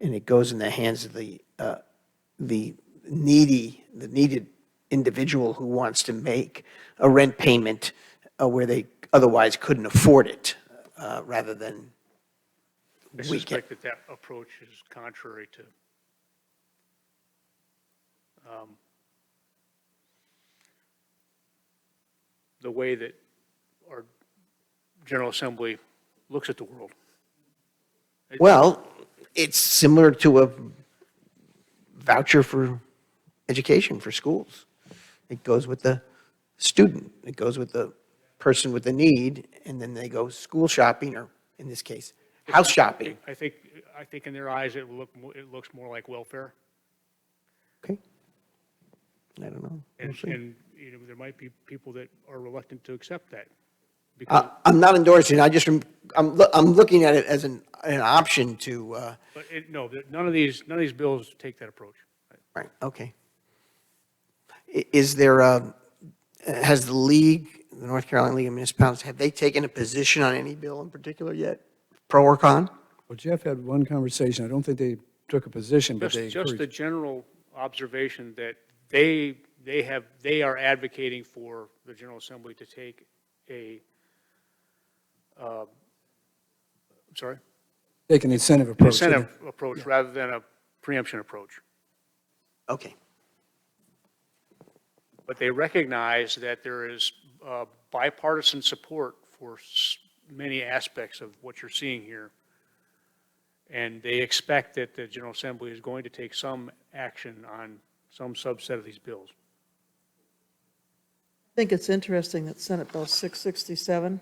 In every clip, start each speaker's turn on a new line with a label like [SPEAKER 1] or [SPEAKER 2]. [SPEAKER 1] and it goes in the hands of the, uh, the needy, the needed individual who wants to make a rent payment uh, where they otherwise couldn't afford it, uh, rather than
[SPEAKER 2] I
[SPEAKER 1] We
[SPEAKER 2] suspect that that approach is contrary to um, the way that our General Assembly looks at the world.
[SPEAKER 1] Well, it's similar to a voucher for education for schools. It goes with the student, it goes with the person with the need, and then they go school shopping, or in this case, house shopping.
[SPEAKER 2] I think, I think in their eyes, it look, mo- it looks more like welfare.
[SPEAKER 1] Okay? I don't know. We'll
[SPEAKER 2] And,
[SPEAKER 1] see.
[SPEAKER 2] and, you know, there might be people that are reluctant to accept that. because
[SPEAKER 1] I- I'm not endorsing, I just, am- I'm, loo- I'm looking at it as an, an option to, uh,
[SPEAKER 2] But it, no, th- none of these, none of these bills take that approach.
[SPEAKER 1] Right, okay. I- Is there a, has the league, the North Carolina League of Municipalities, have they taken a position on any bill in particular yet? Pro or con?
[SPEAKER 3] Well, Jeff had one conversation. I don't think they took a position, but they
[SPEAKER 2] Just, just the
[SPEAKER 3] encouraged.
[SPEAKER 2] general observation that they, they have, they are advocating for the General Assembly to take a, um, sorry,
[SPEAKER 3] Take an incentive
[SPEAKER 2] an
[SPEAKER 3] approach.
[SPEAKER 2] incentive approach rather than a preemption approach.
[SPEAKER 1] Okay,
[SPEAKER 2] But they recognize that there is uh, bipartisan support for s- many aspects of what you're seeing here. And they expect that the General Assembly is going to take some action on some subset of these bills.
[SPEAKER 4] I think it's interesting that Senate Bill 667,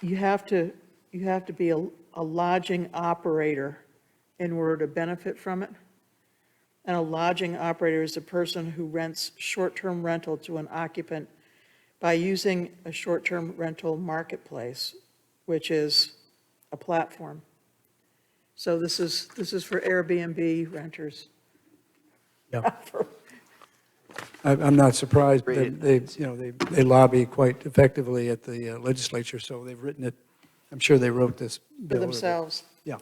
[SPEAKER 4] you have to, you have to be a a lodging operator in order to benefit from it. And a lodging operator is a person who rents short-term rental to an occupant by using a short-term rental marketplace, which is a platform. So this is, this is for Airbnb renters.
[SPEAKER 3] I- I'm not surprised. They,
[SPEAKER 1] Read
[SPEAKER 3] they- you know, they they lobby quite effectively at the uh, legislature, so they've written it. I'm sure they wrote this.
[SPEAKER 4] For
[SPEAKER 3] bill.
[SPEAKER 4] themselves.
[SPEAKER 3] Yeah.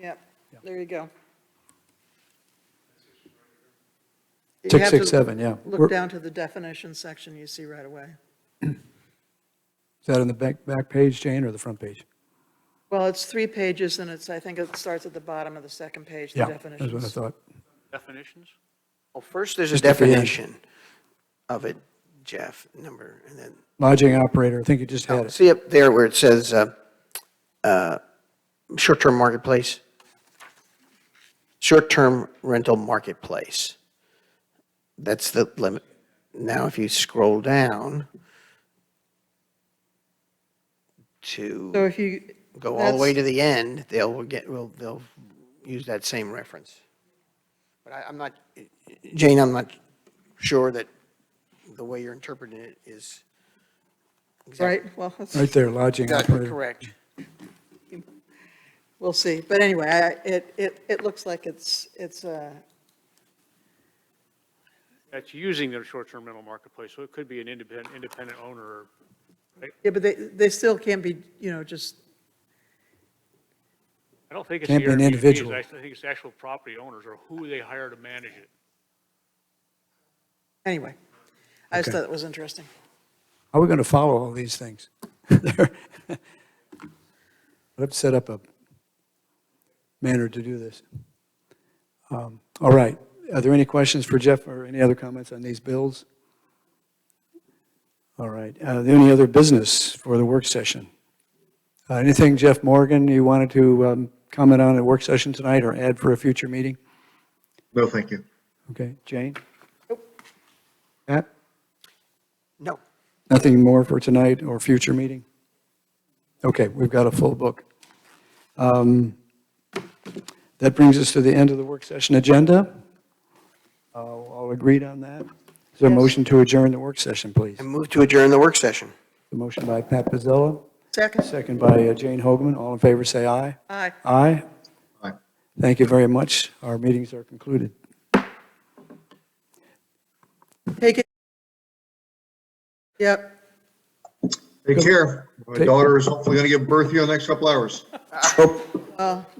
[SPEAKER 4] Yep, there you go. You have to
[SPEAKER 3] 667, yeah.
[SPEAKER 4] Look
[SPEAKER 3] We're-
[SPEAKER 4] down to the definition section, you see right away.
[SPEAKER 3] Is that on the back, back page, Jane, or the front page?
[SPEAKER 4] Well, it's three pages, and it's, I think it starts at the bottom of the second page, the
[SPEAKER 3] Yeah, that's what I
[SPEAKER 4] definitions.
[SPEAKER 3] thought.
[SPEAKER 2] Definitions?
[SPEAKER 1] well, first there's a
[SPEAKER 3] Just at the end.
[SPEAKER 1] definition of it, Jeff, number, and then,
[SPEAKER 3] Lodging operator, I think you just had
[SPEAKER 1] oh,
[SPEAKER 3] it.
[SPEAKER 1] see up there where it says, uh, uh, short-term marketplace? Short-term rental marketplace. That's the limit. Now, if you scroll down to.
[SPEAKER 4] So if you.
[SPEAKER 1] go all the way
[SPEAKER 4] that's-
[SPEAKER 1] to the end, they'll get, will, they'll use that same reference. But I, I'm not, Jane, I'm not sure that the way you're interpreting it is
[SPEAKER 4] Right, well, that's-
[SPEAKER 3] Right there, lodging
[SPEAKER 1] exactly
[SPEAKER 3] operator.
[SPEAKER 1] correct.
[SPEAKER 4] we'll see. But anyway, I- it, it, it looks like it's, it's, uh,
[SPEAKER 2] That's using their short-term rental marketplace, so it could be an independent, independent owner or
[SPEAKER 4] yeah, but they, they still can't be, you know, just,
[SPEAKER 2] I don't think it's the
[SPEAKER 3] Can't be an
[SPEAKER 2] Airbnb's,
[SPEAKER 3] individual.
[SPEAKER 2] I think it's the actual property owners or who they hire to manage it.
[SPEAKER 4] anyway. I just
[SPEAKER 3] Okay.
[SPEAKER 4] thought it was interesting.
[SPEAKER 3] How are we going to follow all these things? They're- Let's set up a manner to do this. Um, All right. Are there any questions for Jeff or any other comments on these bills? All right. Uh, the Any other business for the work session? Uh, Anything, Jeff Morgan, you wanted to um, comment on at work session tonight or add for a future meeting?
[SPEAKER 5] No, thank you.
[SPEAKER 3] Okay. Jane? Matt?
[SPEAKER 1] No.
[SPEAKER 3] Nothing more for tonight or future meeting? Okay, we've got a full book. Um, That brings us to the end of the work session agenda. Uh, All agreed on that? Is there a motion to adjourn the work session, please?
[SPEAKER 1] And move to adjourn the work session.
[SPEAKER 3] The motion by Pat Pizzella,
[SPEAKER 4] Second,
[SPEAKER 3] second by uh, Jane Hoagman. All in favor, say aye.
[SPEAKER 4] aye.
[SPEAKER 3] Aye.
[SPEAKER 5] Aye.
[SPEAKER 3] Thank you very much. Our meetings are concluded.
[SPEAKER 4] Take it. Yep.
[SPEAKER 5] Take care. My
[SPEAKER 3] Take-
[SPEAKER 5] daughter is hopefully going to give birth here in the next couple hours.